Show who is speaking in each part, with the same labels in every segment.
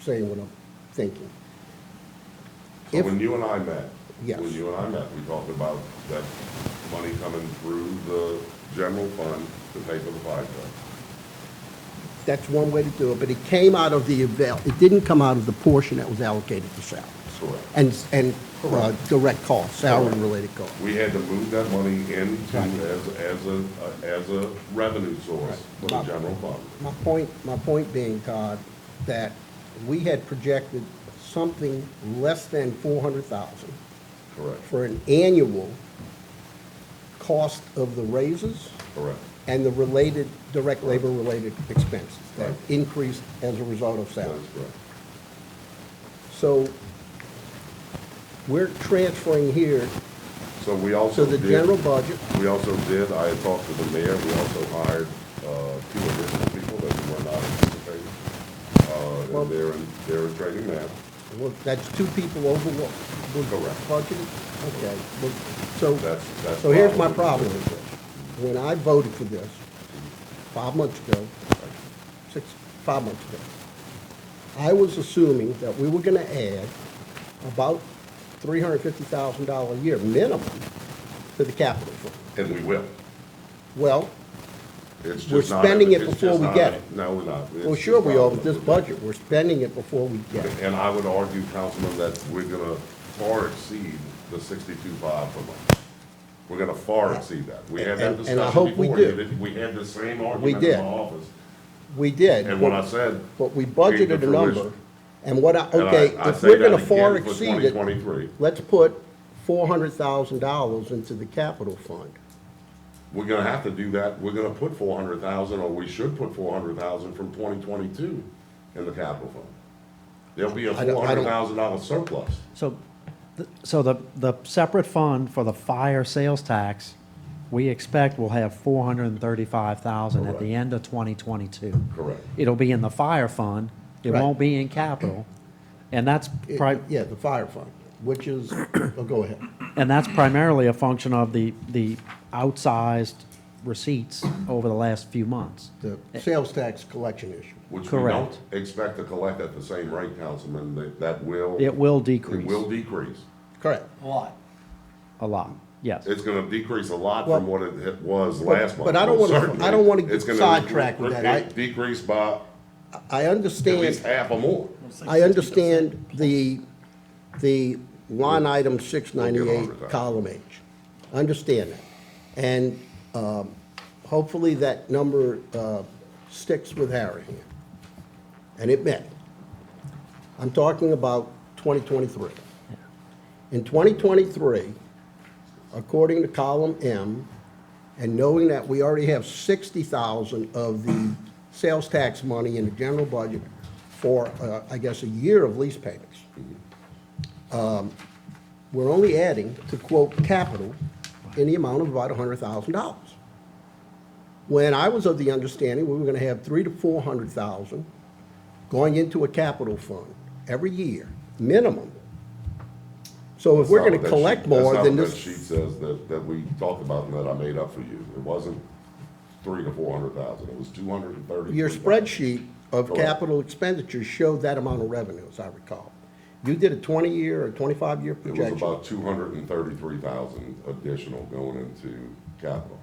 Speaker 1: saying what I'm thinking.
Speaker 2: So
Speaker 1: If-
Speaker 2: when you and I met,
Speaker 1: Yes.
Speaker 2: when you and I met, we talked about that money coming through the general fund to pay for the fire truck.
Speaker 1: That's one way to do it, but it came out of the, avail- it didn't come out of the portion that was allocated to salary
Speaker 2: Correct.
Speaker 1: and, and uh, direct costs, salary-related costs.
Speaker 2: We had to move that money into
Speaker 1: Right.
Speaker 2: as, as a, as a revenue source for the
Speaker 1: Right.
Speaker 2: general fund.
Speaker 1: My point, my point being, Todd, that we had projected something less than four hundred thousand
Speaker 2: Correct,
Speaker 1: for an annual cost of the raises
Speaker 2: correct,
Speaker 1: and the related, direct labor-related expenses that
Speaker 2: Right.
Speaker 1: increased as a result of
Speaker 2: that's
Speaker 1: salary.
Speaker 2: correct.
Speaker 1: So we're transferring here
Speaker 2: So we
Speaker 1: to
Speaker 2: also
Speaker 1: the
Speaker 2: did.
Speaker 1: general budget.
Speaker 2: We also did, I had talked to the mayor, we also hired uh, two additional people that were not anticipated. Uh,
Speaker 1: Well-
Speaker 2: and They're, in- they're in training now.
Speaker 1: Well, That's two people over what was
Speaker 2: Correct.
Speaker 1: budgeted? Okay, well, so,
Speaker 2: That's- that's
Speaker 1: so here's my
Speaker 2: probably-
Speaker 1: problem with this. When I voted for this, five months ago, six, five months ago, I was assuming that we were gonna add about three hundred fifty thousand dollar a year minimum to the capital fund.
Speaker 2: And we will.
Speaker 1: Well,
Speaker 2: It's
Speaker 1: We're
Speaker 2: just not-
Speaker 1: spending it
Speaker 2: it's
Speaker 1: before
Speaker 2: just
Speaker 1: we
Speaker 2: not-
Speaker 1: get it.
Speaker 2: No, we're not. It's
Speaker 1: well, sure we
Speaker 2: just
Speaker 1: are
Speaker 2: not-
Speaker 1: with this budget, we're spending it before we get it.
Speaker 2: And I would argue, Councilman, that we're gonna far exceed the sixty-two five per month. We're gonna far exceed that. We had
Speaker 1: And-
Speaker 2: that
Speaker 1: and I
Speaker 2: discussion
Speaker 1: hope we
Speaker 2: before. You
Speaker 1: do.
Speaker 2: did- We had the same argument
Speaker 1: did.
Speaker 2: in my office.
Speaker 1: We did.
Speaker 2: And when
Speaker 1: but-
Speaker 2: I said,
Speaker 1: But we
Speaker 2: Came to
Speaker 1: budgeted a number,
Speaker 2: fruition.
Speaker 1: and what I,
Speaker 2: And I-
Speaker 1: okay,
Speaker 2: I
Speaker 1: if
Speaker 2: say
Speaker 1: we're
Speaker 2: that
Speaker 1: gonna far
Speaker 2: again for
Speaker 1: exceed it,
Speaker 2: 2023.
Speaker 1: let's put four hundred thousand dollars into the capital fund.
Speaker 2: We're gonna have to do that, we're gonna put four hundred thousand, or we should put four hundred thousand from twenty twenty-two in the capital fund. There'll be a
Speaker 1: I don't-
Speaker 2: four
Speaker 1: I
Speaker 2: hundred
Speaker 1: don't-
Speaker 2: thousand dollar surplus.
Speaker 3: So, th- so the, the separate fund for the fire sales tax, we expect will have four hundred and thirty-five thousand at
Speaker 2: Correct.
Speaker 3: the end of twenty twenty-two.
Speaker 2: Correct.
Speaker 3: It'll be in the fire fund, it
Speaker 1: Right.
Speaker 3: won't be in capital, and that's
Speaker 1: It-
Speaker 3: pri-
Speaker 1: Yeah, the fire fund, which is, oh, go ahead.
Speaker 3: and that's primarily a function of the, the outsized receipts over the last few months.
Speaker 1: The sales tax collection issue.
Speaker 2: Which we
Speaker 3: Correct.
Speaker 2: don't expect to collect at the same rate, Councilman, that, that will.
Speaker 3: It will
Speaker 2: It
Speaker 3: decrease
Speaker 2: will decrease.
Speaker 1: Correct.
Speaker 3: a lot, yes.
Speaker 2: It's gonna decrease a lot
Speaker 1: Well-
Speaker 2: from what it it was
Speaker 1: But-
Speaker 2: last month.
Speaker 1: but I don't
Speaker 2: most
Speaker 1: wanna-
Speaker 2: certainly.
Speaker 1: I don't wanna get
Speaker 2: It's gonna
Speaker 1: sidetracked with that. I-
Speaker 2: de- Decrease by
Speaker 1: I
Speaker 2: at least
Speaker 1: understand,
Speaker 2: half or more.
Speaker 1: I understand the, the line item six ninety-eight,
Speaker 2: 100,000.
Speaker 1: column H. I Understand that. And, um, hopefully that number, uh, sticks with Harry here. and it may. I'm talking about 2023. In 2023, according to column M, and knowing that we already have 60,000 of the sales tax money in the general budget for, uh, I guess, a year of lease payments, um, we're only adding, to quote, capital in the amount of about $100,000 when I was of the understanding we were gonna have three to four hundred thousand going into a capital fund every year, minimum. So if we're gonna
Speaker 2: That's not what that
Speaker 1: collect
Speaker 2: sheet- that's
Speaker 1: more
Speaker 2: not
Speaker 1: than
Speaker 2: what That sheet
Speaker 1: this,
Speaker 2: says that, that we talked about and that I made up for you. It wasn't three to four hundred thousand, it was two hundred and thirty.
Speaker 1: your spreadsheet of
Speaker 2: Correct.
Speaker 1: capital expenditures showed that amount of revenue, as I recall. You did a twenty-year or twenty-five-year
Speaker 2: It was
Speaker 1: projection.
Speaker 2: about two hundred and thirty-three thousand additional going into capital,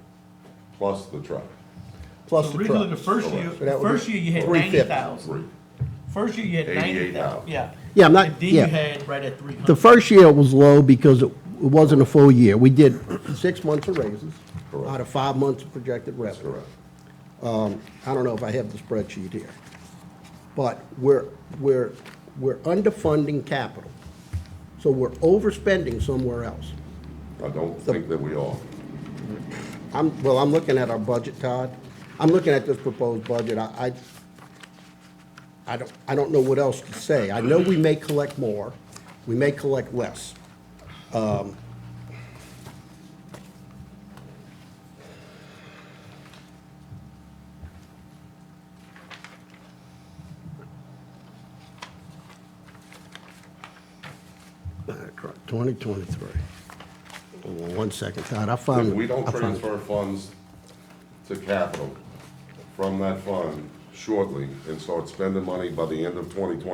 Speaker 2: plus the truck.
Speaker 1: Plus the
Speaker 4: Originally, the
Speaker 1: truck.
Speaker 4: first year,
Speaker 1: So that would
Speaker 4: first
Speaker 1: be
Speaker 4: year you had
Speaker 1: 350.
Speaker 4: ninety thousand.
Speaker 2: Three.
Speaker 4: First year you had ninety
Speaker 2: 88,000.
Speaker 4: thousand, yeah.
Speaker 1: Yeah, I'm not-
Speaker 4: And then you
Speaker 1: yeah.
Speaker 4: had right at three hundred.
Speaker 1: The first year was low because it it wasn't a full year. We did six months of raises
Speaker 2: Correct.
Speaker 1: out of five months of projected
Speaker 2: That's
Speaker 1: revenue. Um,
Speaker 2: correct.
Speaker 1: I don't know if I have the spreadsheet here, but we're, we're, we're underfunding capital. So we're overspending somewhere else.
Speaker 2: I don't think that we are.
Speaker 1: I'm, well, I'm looking at our budget, Todd. I'm looking at this proposed budget. I, I, I don't, I don't know what else to say. I know we may collect more, we may collect less. Um, Twenty twenty-three. One second, Todd, I found.
Speaker 2: If we don't
Speaker 1: I found-
Speaker 2: transfer funds to capital from that fund shortly and start spending money by the end of twenty twenty